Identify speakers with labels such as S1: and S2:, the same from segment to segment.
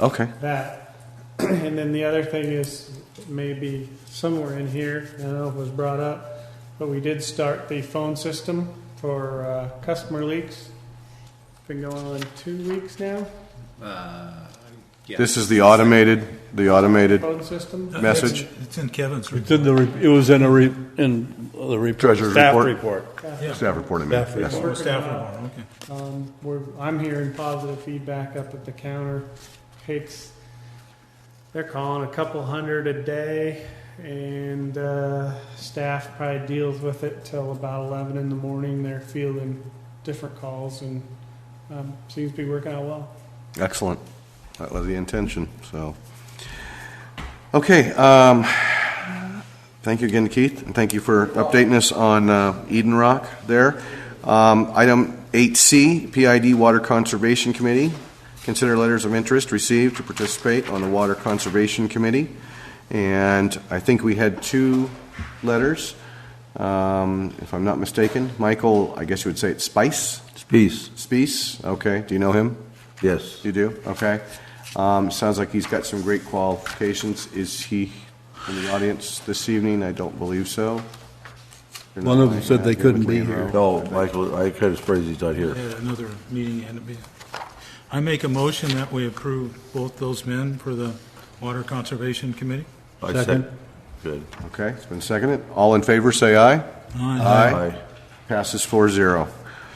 S1: Okay.
S2: that. And then the other thing is maybe somewhere in here, I don't know if it was brought up, but we did start the phone system for uh, customer leaks. Been going on two weeks now,
S3: Uh, yeah.
S1: This is the automated, the automated
S2: phone system.
S1: message.
S4: It's in Kevin's
S5: It's in the, re- it was in a, re- in the re-
S1: Treasurer's
S5: staff
S1: report.
S5: report.
S1: Staff reporting.
S5: Staff report.
S4: Oh, staff report, okay.
S2: Um, we're, I'm hearing positive feedback up at the counter. It's, they're calling a couple hundred a day, and uh, staff probably deals with it till about 11 in the morning. They're fielding different calls and um, seems to be working out well.
S1: Excellent. That was the intention, so. Okay, um, thank you again, Keith, and thank you for updating us on uh, Eden Rock there. Um, Item 8C, PID Water Conservation Committee. Consider letters of interest received to participate on the Water Conservation Committee. And I think we had two letters, um, if I'm not mistaken. Michael, I guess you would say it's Spice?
S6: Peace,
S1: Spice, okay, do you know him?
S6: yes.
S1: You do? Okay. Um, Sounds like he's got some great qualifications. Is he in the audience this evening? I don't believe so. They're not
S5: One of them
S1: lining
S5: said
S1: up
S5: they
S1: here
S5: couldn't
S1: with me
S5: be
S1: in a
S5: here.
S1: row.
S6: No, Michael, I kind of surprised he's not here.
S4: Yeah, Another meeting had to be. I make a motion that we approve both those men for the Water Conservation Committee.
S6: I
S5: Second.
S6: sec- Good.
S1: Okay, it's been seconded. All in favor, say aye. Uh,
S4: Aye.
S6: Aye.
S1: Passes four zero.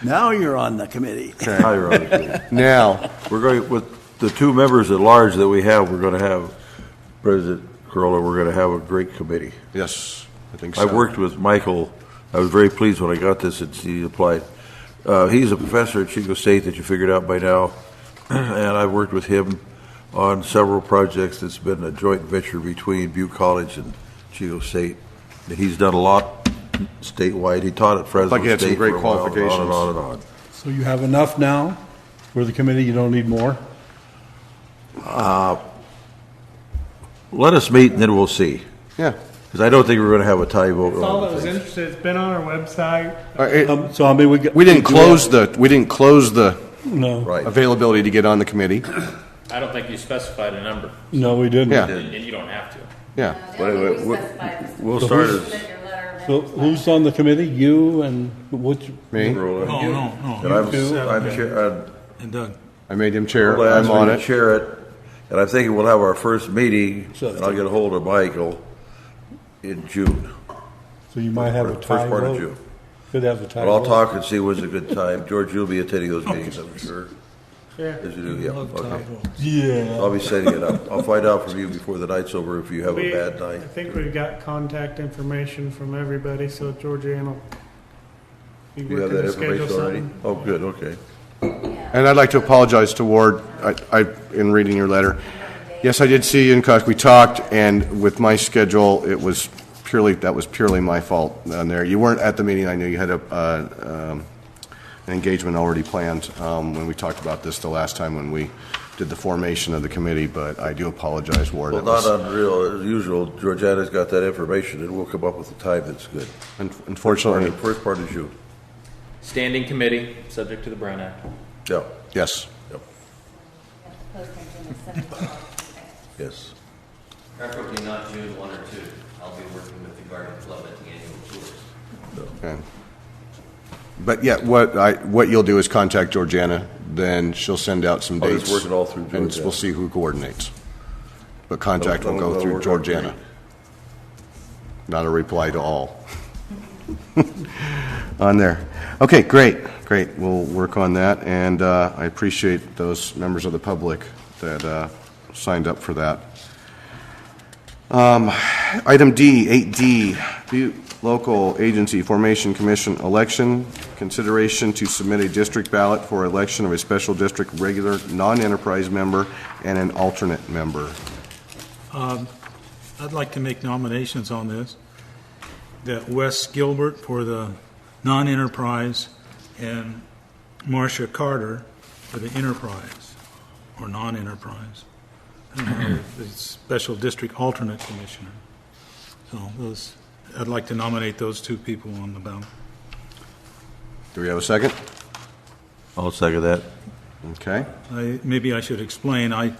S7: Now you're on the committee.
S6: Aye, Roger, good.
S1: Now,
S6: We're going, with the two members at large that we have, we're going to have, President Corolla, we're going to have a great committee.
S1: yes, I think so.
S6: I worked with Michael. I was very pleased when I got this and he applied. Uh, he's a professor at Chico State that you figured out by now, and I've worked with him on several projects. It's been a joint venture between Butte College and Chico State. And he's done a lot statewide. He taught at Fresno
S1: Like he had some
S6: State
S1: great
S6: for a while, and on and
S1: qualifications.
S6: on and on.
S5: So you have enough now for the committee, you don't need more?
S6: Let us meet and then we'll see,
S1: Yeah.
S6: because I don't think we're going to have a tie vote
S2: That's all
S6: on
S2: that was
S6: things.
S2: interested. It's been on our website.
S1: All right, it-
S5: Um, So I mean, we. got-
S1: We didn't
S5: do have-
S1: close the, we didn't close the
S5: No,
S6: Right.
S1: availability to get on the committee.
S8: I don't think you specified a number,
S5: no, we didn't.
S1: Yeah,
S8: and you don't have to.
S1: yeah.
S6: But anyway,
S9: We
S6: we'll-
S9: specified this.
S6: We'll start as,
S9: Submit your letter of
S5: So
S9: interest.
S5: who's on the committee? You and which?
S1: Me,
S6: Corolla.
S4: Oh, No, no,
S6: And
S4: no.
S6: I'm,
S4: You two.
S6: I'm, chair- I'm
S4: And Doug.
S1: I made him chair.
S6: Well,
S1: I'm
S6: ask
S1: on
S6: me to
S1: it.
S6: chair it, and I'm thinking we'll have our first meeting, and I'll get a hold of Michael in June,
S5: So you might have a
S6: First
S5: tie
S6: part of
S5: vote.
S6: June.
S5: Could have a tie
S6: But I'll
S5: vote.
S6: talk and see when's a good time. George, you'll be attending those meetings, I'm sure.
S2: Yeah.
S6: As you do, yeah, okay.
S5: Yeah.
S6: I'll be setting it up. I'll find out from you before the night's over if you have a
S2: We-
S6: bad
S2: I
S6: night.
S2: think we've got contact information from everybody, so Georgiana will be
S6: You have
S2: working
S6: that
S2: to schedule
S6: information already?
S2: something.
S6: Oh, good, okay.
S1: And I'd like to apologize to Ward, I, I- in reading your letter. Yes, I did see you in Cook, we talked, and with my schedule, it was purely, that was purely my fault on there. You weren't at the meeting, I knew you had a, uh, um, an engagement already planned um, when we talked about this the last time when we did the formation of the committee, but I do apologize, Ward.
S6: Well,
S1: It
S6: not
S1: was-
S6: unreal, as usual, Georgiana's got that information, and we'll come up with a time that's good.
S1: un-
S6: Or the
S1: Unfortunately,
S6: First part of June,
S8: Standing committee, subject to the Brown Act.
S6: yeah,
S1: yes.
S9: Posting June the 7th. Okay.
S6: yes.
S10: Preferably not June one or two. I'll be working with the garden club at the annual tours.
S1: Okay. But yeah, what I, what you'll do is contact Georgiana, then she'll send out some
S6: I'll
S1: dates.
S6: just work it Oh, all through
S1: And
S6: Georgiana.
S1: we'll see who coordinates. But contact will
S6: That'll-
S1: go
S6: that'll
S1: through
S6: work out
S1: Georgiana.
S6: great.
S1: Not a reply to all. On there. Okay, great, great. We'll work on that, and uh, I appreciate those members of the public that uh, signed up for that. Um, Item D, 8D, Butte Local Agency Formation Commission Election, consideration to submit a district ballot for election of a special district regular non-enterprise member and an alternate member.
S4: I'd like to make nominations on this, that Wes Gilbert for the non-enterprise and Marcia Carter for the enterprise, or non-enterprise. I don't know, The special district alternate commissioner. So those, I'd like to nominate those two people on the ballot.
S1: Do we have a second?
S6: I'll second that.
S1: Okay.
S4: I, maybe I should explain, I